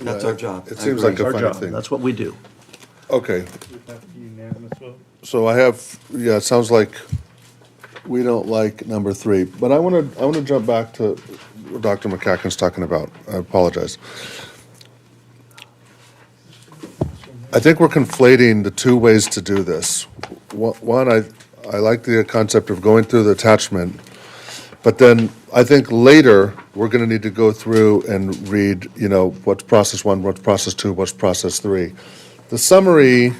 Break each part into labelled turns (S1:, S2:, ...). S1: That's our job.
S2: It
S1: I
S2: seems
S1: agree.
S2: like
S3: Our
S2: a funny
S3: job,
S2: thing.
S3: that's what we do.
S2: Okay,
S4: Unanimous vote?
S2: so I have, yeah, it sounds like we don't like number three, but I want to, I want to jump back to what Dr. McCacken's talking about. I apologize. I think we're conflating the two ways to do this. Wha- One, I, I like the concept of going through the attachment, but then I think later, we're going to need to go through and read, you know, what's process one, what's process two, what's process three. The summary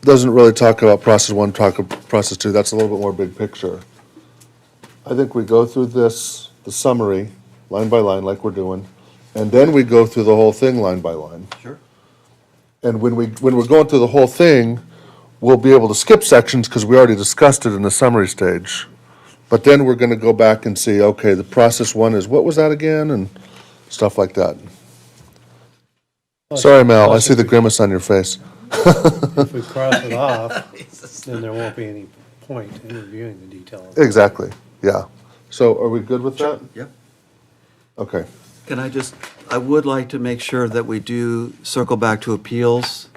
S2: doesn't really talk about process one, talk of process two, that's a little bit more big picture. I think we go through this, the summary, line by line, like we're doing, and then we go through the whole thing line by line.
S1: Sure.
S2: And when we, when we're going through the whole thing, we'll be able to skip sections because we already discussed it in the summary stage. But then we're gonna go back and see, okay, the process one is, what was that again, and stuff like that. Sorry, Mel, I see the grimace on your face.
S4: If we cross it off, then there won't be any point in reviewing the detail. of it.
S2: Exactly, yeah. So are we good with that?
S1: Yep.
S2: Okay,
S1: Can I just, I would like to make sure that we do circle back to appeals,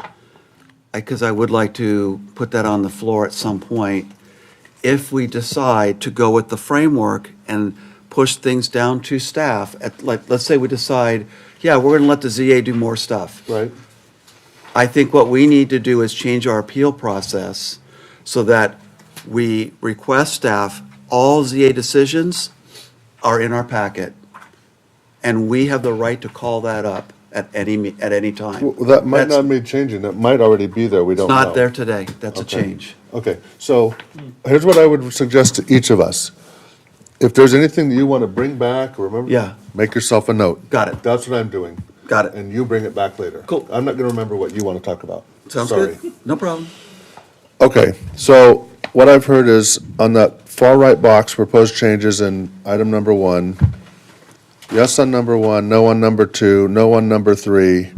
S1: because I would like to put that on the floor at some point. If we decide to go with the framework and push things down to staff, at, like, let's say we decide, yeah, we're gonna let the ZA do more stuff.
S2: right,
S1: I think what we need to do is change our appeal process so that we request staff, all ZA decisions are in our packet. And we have the right to call that up at any, me- at any time.
S2: Well, that might
S1: That's-
S2: not be changing, that might already be there, we
S1: It's
S2: don't know.
S1: not there today. That's a
S2: Okay.
S1: change.
S2: Okay, so here's what I would suggest to each of us. If there's anything that you want to bring back, or remember.
S1: Yeah.
S2: Make yourself a note.
S1: Got it.
S2: That's what I'm doing.
S1: Got it.
S2: And you bring it back later.
S1: Cool.
S2: I'm not going to remember what you want to talk about.
S1: Sounds
S2: Sorry.
S1: good? No problem.
S2: Okay, so what I've heard is on that far right box, proposed changes in item number one, yes on number one, no on number two, no on number three.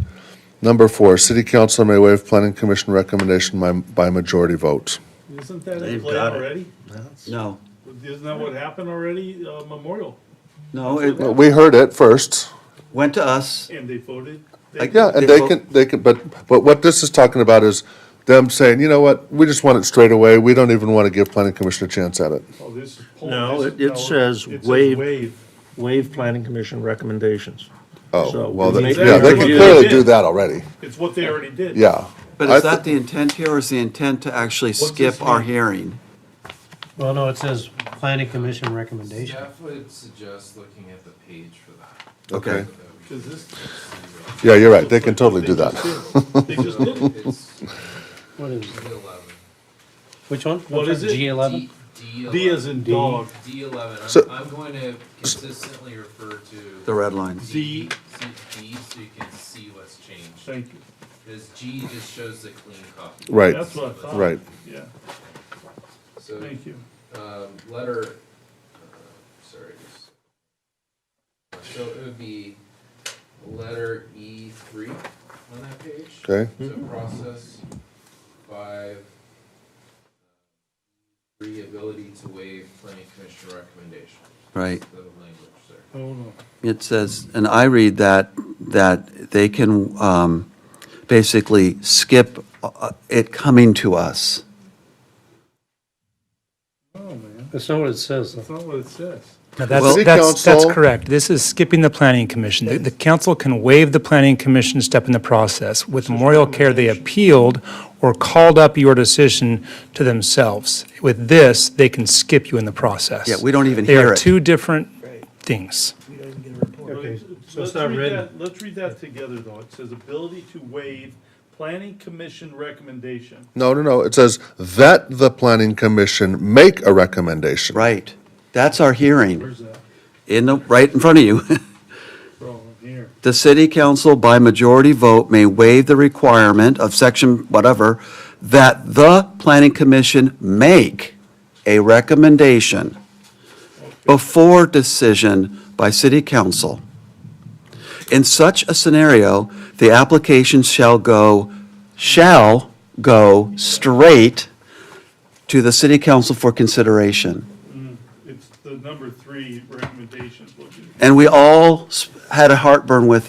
S2: Number four, city council may waive planning commission recommendation by, by majority vote.
S5: Isn't that in
S3: They've
S5: play
S3: got it.
S5: already?
S1: No,
S5: Isn't that what happened already, uh, Memorial?
S1: no, it
S2: We heard it first.
S1: went to us.
S5: And they voted? they-
S1: Like,
S2: Yeah, and
S1: They
S2: they
S1: vote-
S2: can, they can, but, but what this is talking about is them saying, you know what, we just want it straight away, we don't even want to give planning commission a chance at it.
S5: Oh, this is pulling-
S3: No, it-
S5: this is-
S3: it
S5: no,
S3: says
S5: it
S3: waive. Waive planning commission recommendations.
S2: Oh,
S3: So,
S2: well,
S3: we
S2: they-
S3: make
S2: yeah, they
S3: them
S2: can
S3: do
S2: clearly
S5: it.
S2: do that already,
S5: It's what they already did.
S2: yeah.
S1: But
S2: I
S1: is
S2: thi-
S1: that the intent here or is the intent to actually
S5: this
S1: skip our
S5: mean?
S1: hearing?
S4: Well, no, it says planning commission recommendation.
S6: Jeff would suggest looking at the page for that.
S1: Okay.
S5: Cause this.
S2: Yeah, you're right, they can totally do that.
S5: just did. They just did. it.
S6: It's uh,
S4: What is,
S6: D eleven.
S4: which one?
S5: What is it?
S4: G eleven?
S6: D
S5: D as in dog.
S6: D eleven.
S2: So-
S6: I'm, I'm going to consistently refer to.
S1: The red lines.
S5: D,
S6: to D so you can see what's changed.
S5: thank you.
S6: Because G just shows the clean copy.
S2: Right,
S5: That's what I thought.
S2: right.
S5: Yeah,
S6: So,
S5: thank you.
S6: um, letter, uh, sorry. just- So it would be letter E three on that page.
S2: Okay.
S6: So process five, three ability to waive planning commission recommendation,
S1: Right.
S6: the language there.
S5: Oh, no.
S1: It says, and I read that, that they can um, basically skip uh, it coming to us.
S5: Oh, man,
S4: That's not what it says. though.
S5: that's not what it says.
S2: City
S7: No, that's, that's, that's
S2: Council-
S7: correct. This is skipping the planning commission. The, the council can waive the planning commission step in the process. With memorial care, they appealed or called up your decision to themselves. With this, they can skip you in the process.
S1: Yeah, we don't even
S7: They
S1: hear
S7: are
S1: it.
S7: two different things.
S5: Let's-
S4: so
S5: Let's
S4: it's not
S5: read
S4: written.
S5: that, let's read that together, though. It says ability to waive planning commission recommendation.
S2: No, no, no, it says that the planning commission make a recommendation.
S1: Right. That's our hearing,
S5: Where's that?
S1: in the, right in front of you.
S5: Wrong here.
S1: The city council by majority vote may waive the requirement of section whatever that the planning commission make a recommendation before decision by city council. In such a scenario, the application shall go, shall go straight to the city council for consideration.
S5: It's the number three recommendation. what you-
S1: And we all s- had a heartburn with